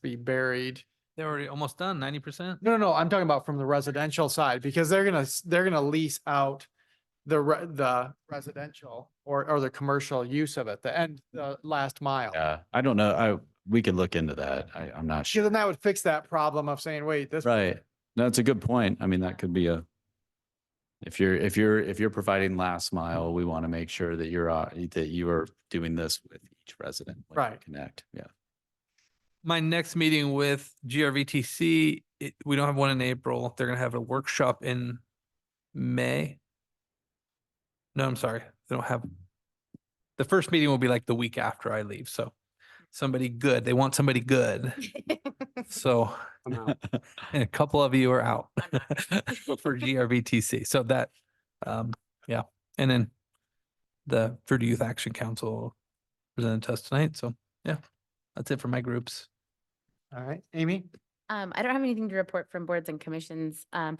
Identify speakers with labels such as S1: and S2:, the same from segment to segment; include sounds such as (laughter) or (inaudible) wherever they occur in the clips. S1: be buried.
S2: They're already almost done, ninety percent.
S1: No, no, no, I'm talking about from the residential side because they're gonna, s- they're gonna lease out the re- the residential or or the commercial use of it, the end, the last mile.
S3: Yeah, I don't know. I, we could look into that. I, I'm not
S1: Because
S3: sure.
S1: then that would fix that problem of saying, wait, this.
S3: Right. No, it's a good point. I mean, that could be a, if you're, if you're, if you're providing last mile, we want to make sure that you're, uh, that you are doing this with each resident. when you
S1: Right.
S3: Connect, yeah.
S2: My next meeting with GRVTC, it, we don't have one in April. They're gonna have a workshop in May. No, I'm sorry, they don't have. The first meeting will be like the week after I leave, so somebody good, they want somebody good, so. (laughs) And a couple of you are out (laughs) for GRVTC. So that, um, yeah. And then the Fruity Youth Action Council presented to us tonight. So yeah, that's it for my groups.
S1: All right, Amy?
S4: Um, I don't have anything to report from boards and commissions. Um,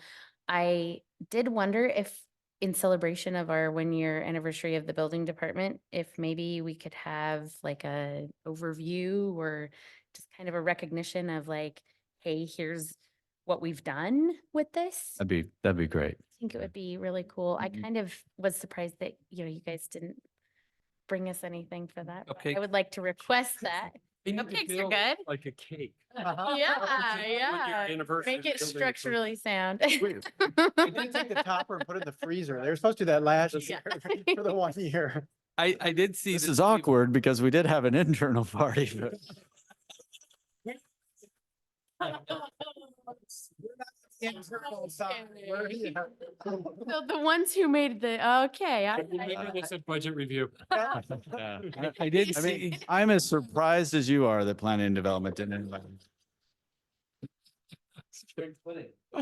S4: I did wonder if in celebration of our one-year anniversary of the building department, if maybe we could have like a overview or just kind of a recognition of like, hey, here's what we've done with this. I
S3: That'd be, that'd be great.
S4: think it would be really cool. I
S3: Mhm.
S4: kind of was surprised that, you know, you guys didn't bring us anything for that. but
S2: Cupcake.
S4: I would like to request that. Cupcakes are good.
S5: Like a cake. Uh-huh.
S4: Yeah,
S5: With your
S4: yeah.
S5: anniversary
S4: Make
S5: building or
S4: it
S5: something.
S1: (laughs)
S4: structurally sound. (laughs)
S1: Wait, We did take the topper and put it in the freezer. They were supposed to do that last year
S4: Yeah.
S1: for the one
S5: (laughs)
S1: year.
S2: I, I did see.
S3: This
S2: that
S3: is
S2: people-
S3: awkward because we did have an (laughs) internal party, but
S4: So the ones who made the, okay. I-
S5: Maybe
S4: I-
S5: This is budget review.
S3: yeah.
S2: I- I did
S3: I mean,
S2: see,
S3: I'm as surprised as you are that planning and development didn't invite. us.
S4: (laughs)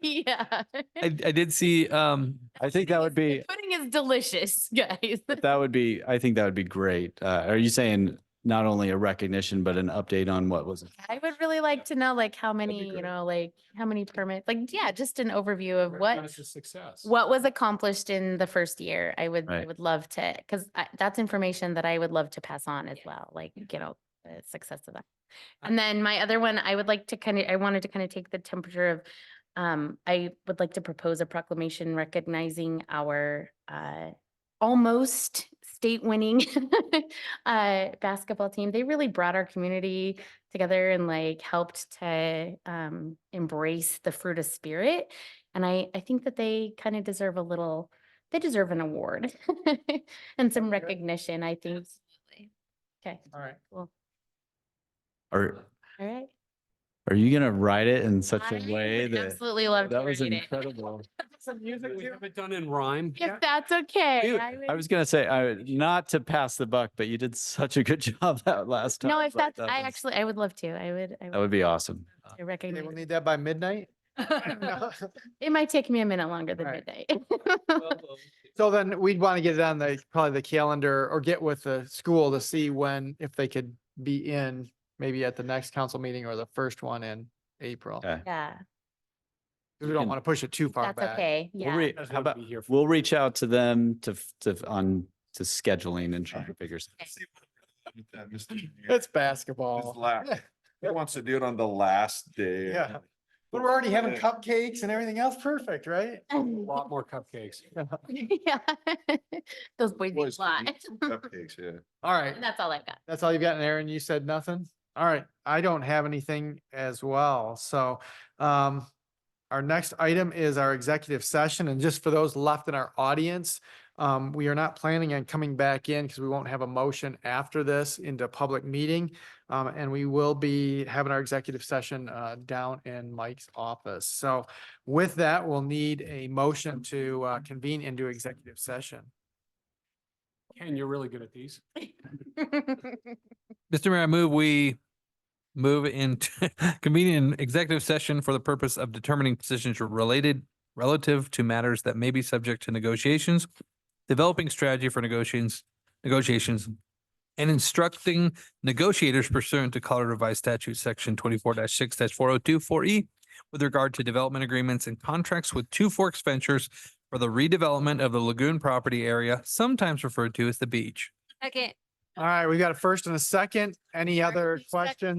S4: Yeah.
S2: I, I did see, um,
S3: I think that would be,
S4: Pudding is delicious, (laughs) guys.
S3: that would be, I think that would be great. Uh, are you saying not only a recognition, but an update on what was?
S4: I would really like to know like how many, you
S5: great.
S4: know, like how many permits, like, yeah, just an overview of what.
S5: Recognize your Success.
S4: what was accomplished in the first year, I would, I
S3: Right.
S4: would love to, because that's information that I would love to pass on as well, like, you know, the success of that. And then my other one, I would like to kind of, I wanted to kind of take the temperature of, um, I would like to propose a proclamation recognizing our, uh, almost state-winning, (laughs) uh, basketball team. They really brought our community together and like helped to, um, embrace the fruit of spirit. And I, I think that they kind of deserve a little, they deserve an award (laughs) and some recognition, I think. Okay,
S1: All right.
S4: cool.
S3: Or
S4: All right.
S3: are you gonna write it in such
S4: I
S3: a way
S4: would
S3: that?
S4: Absolutely love to
S3: That was
S4: read it. (laughs)
S3: incredible.
S5: We have it done in
S2: (laughs)
S5: rhyme.
S4: If that's okay.
S3: Dude, I
S4: would-
S3: was gonna say, I, not to pass the buck, but you did such a good (laughs) job that last time.
S4: No, if
S3: Like,
S4: that's, I
S3: was-
S4: actually, I would love to. I would, I
S3: That would
S4: would
S3: be awesome.
S4: love to
S1: They will
S4: recognize.
S1: need that by
S4: (laughs)
S1: midnight. (laughs) No.
S4: It might take me a minute longer than
S1: Alright.
S4: midnight. (laughs)
S1: So then we'd want to get it on the, probably the calendar or get with the school to see when, if they could be in, maybe at the next council meeting or the first one in
S5: Uh,
S1: April.
S3: Okay.
S1: 'Cause
S4: Yeah,
S1: We don't want to push it too far
S4: that's
S1: back.
S4: okay.
S3: We'll
S4: (laughs) Yeah.
S3: re- How about, we'll reach out to them to, f- to, f- on, to scheduling and try to figure. some-
S6: with that, Mr. Mayor.
S1: It's basketball. (laughs)
S6: It's la- He wants to do it on the last day.
S1: Yeah. But we're already having cupcakes and everything else. Perfect, right?
S5: A lot more
S1: (laughs)
S5: cupcakes.
S4: (laughs) Yeah. (laughs) Those boys
S6: Boys
S4: eat a lot.
S6: can eat Cupcakes, yeah.
S1: All right.
S4: (laughs) That's all I've got.
S1: That's all you've got, Aaron? You said nothing? All right, I don't have anything as well. So um, our next item is our executive session. And just for those left in our audience, um, we are not planning on coming back in because we won't have a motion after this into public meeting. Um, and we will be having our executive session uh, down in Mike's office. So with that, we'll need a motion to uh, convene into executive session.
S5: Ken, you're really good at these.
S2: Mr. Mayor, I move we move into (laughs) convening an executive session for the purpose of determining positions related relative to matters that may be subject to negotiations, developing strategy for negotiations, negotiations, and instructing negotiators pursuant to Colorado Revised Statute Section twenty-four six 4024 E with regard to development agreements and contracts with Two Forks Ventures for the redevelopment of the lagoon property area, sometimes referred to as the beach.
S7: Second.
S1: All right, we've got a first and a second. Any other
S7: Second.
S1: questions?